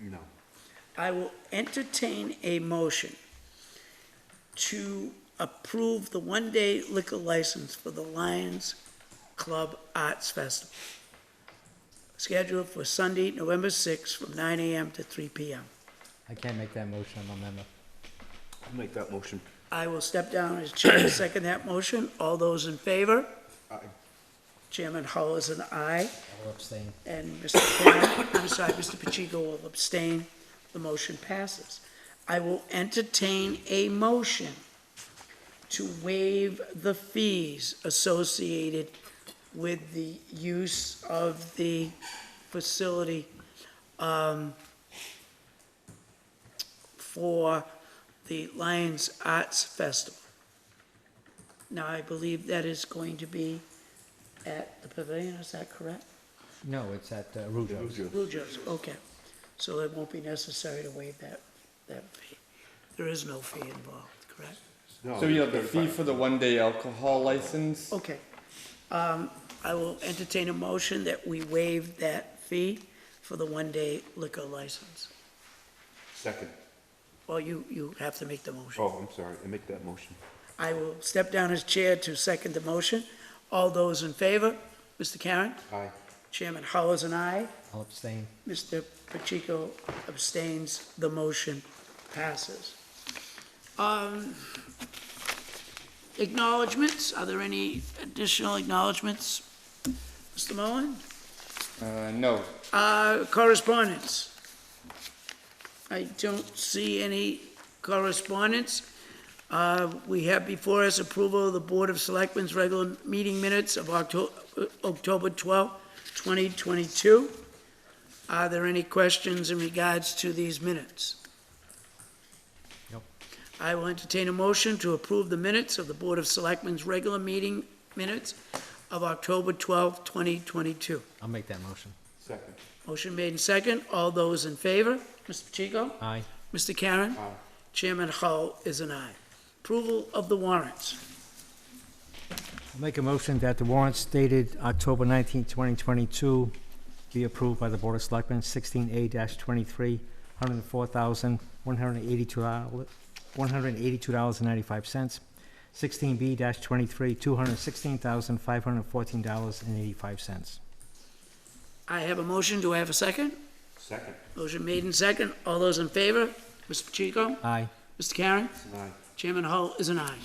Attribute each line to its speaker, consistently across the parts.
Speaker 1: No.
Speaker 2: I will entertain a motion to approve the one-day liquor license for the Lions Club Arts Festival, scheduled for Sunday, November 6th, from 9 AM to 3 PM.
Speaker 3: I can't make that motion, I'm a member.
Speaker 1: I'll Make that motion.
Speaker 2: I will step down as chair and second that motion. All those in favor?
Speaker 1: Aye.
Speaker 2: Chairman Hull is an aye,
Speaker 3: I'll abstain.
Speaker 2: and Mr. Perrin, I'm sorry, Mr. Pacheco will abstain. The motion passes. I will entertain a motion to waive the fees associated with the use of the facility um, for the Lions Arts Festival. Now, I believe that is going to be at the pavilion, is that correct?
Speaker 3: No, it's at uh, Rougeau's.
Speaker 2: Rougeau's, okay. So it won't be necessary to waive that, that fee. There is no fee involved, correct?
Speaker 1: No,
Speaker 4: So you have the fee
Speaker 1: 35.
Speaker 4: for the one-day alcohol license.
Speaker 2: Okay. Um, I will entertain a motion that we waive that fee for the one-day liquor license.
Speaker 1: Second.
Speaker 2: Well, you, you have to make the motion.
Speaker 1: Oh, I'm sorry. I make that motion.
Speaker 2: I will step down as chair to second the motion. All those in favor? Mr. Karen?
Speaker 1: Aye.
Speaker 2: Chairman Hull and I.
Speaker 3: I'll abstain.
Speaker 2: Mr. Pacheco abstains, the motion passes. Um, Acknowledgements, are there any additional acknowledgements? Mr. Mullin?
Speaker 4: Uh, no,
Speaker 2: Uh, Correspondence. I don't see any correspondence. Uh, We have before us approval of the Board of Selectmen's regular meeting minutes of Octo- uh, October 12, 2022. Are there any questions in regards to these minutes?
Speaker 3: Nope.
Speaker 2: I will entertain a motion to approve the minutes of the Board of Selectmen's regular meeting minutes of October 12, 2022.
Speaker 3: I'll make that motion.
Speaker 1: Second.
Speaker 2: Motion made and second. All those in favor? Mr. Pacheco?
Speaker 3: Aye.
Speaker 2: Mr. Karen?
Speaker 1: Aye.
Speaker 2: Chairman Hull is an aye. Approval of the warrants.
Speaker 3: I'll make a motion that the warrants dated October 19, 2022 be approved by the Board of Selectmen, 16A-23, $104,182, $182.95. 16B-23, $216,514.85.
Speaker 2: I have a motion. Do I have a second?
Speaker 1: Second.
Speaker 2: Motion made and second. All those in favor? Mr. Pacheco?
Speaker 3: Aye.
Speaker 2: Mr. Karen?
Speaker 1: Aye.
Speaker 2: Chairman Hull is an aye.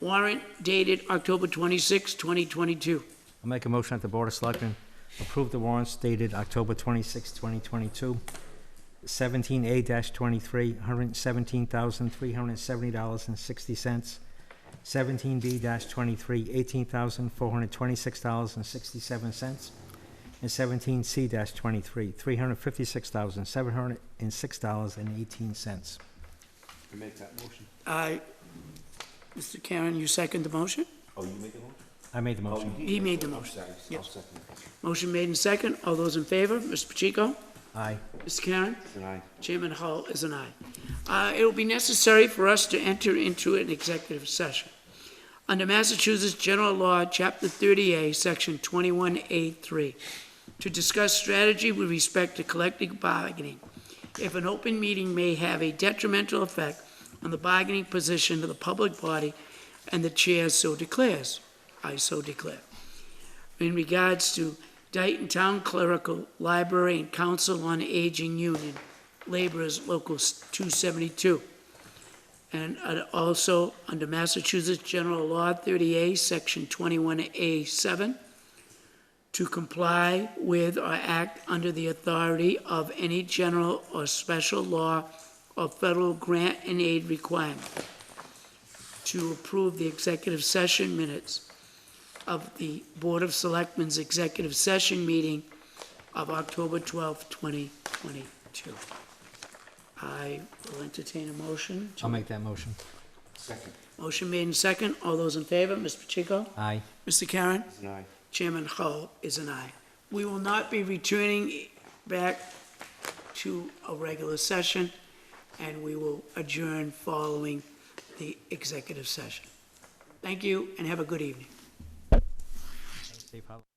Speaker 2: Warrant dated October 26, 2022.
Speaker 3: I'll make a motion that the Board of Selectmen approve the warrants dated October 26, 2022. 17A-23, $117,370.60. 17B-23, $18,426.67. And 17C-23, $356,706.18.
Speaker 1: I make that motion.
Speaker 2: Aye. Mr. Karen, you second the motion?
Speaker 1: Oh, you make a motion?
Speaker 3: I made the
Speaker 1: Oh, you
Speaker 3: motion.
Speaker 1: did
Speaker 2: He
Speaker 1: make
Speaker 2: made
Speaker 1: a
Speaker 2: the
Speaker 1: motion.
Speaker 2: motion.
Speaker 1: Sorry,
Speaker 2: Yes.
Speaker 1: I'll second it.
Speaker 2: Motion made and second. All those in favor? Mr. Pacheco?
Speaker 3: Aye.
Speaker 2: Mr. Karen?
Speaker 1: And I,
Speaker 2: Chairman Hull is an aye. Uh, It will be necessary for us to enter into an executive session. Under Massachusetts General Law, Chapter 30A, Section 21A3, to discuss strategy with respect to collective bargaining. If an open meeting may have a detrimental effect on the bargaining position of the public body, and the chair so declares, I so declare. In regards to Dayton Town Clerical, Library, and Council on Aging Union, laborers, Local 272. And uh, also, under Massachusetts General Law 30A, Section 21A7, to comply with or act under the authority of any general or special law or federal grant and aid requirement, to approve the executive session minutes of the Board of Selectmen's executive session meeting of October 12, 2022. I will entertain a motion.
Speaker 3: I'll make that motion.
Speaker 1: second.
Speaker 2: Motion made and second. All those in favor, Mr. Pacheco?
Speaker 3: Aye.
Speaker 2: Mr. Karen?
Speaker 1: And I.
Speaker 2: Chairman Hull is an aye. We will not be returning back to a regular session, and we will adjourn following the executive session. Thank you, and have a good evening.
Speaker 3: Safe harbor.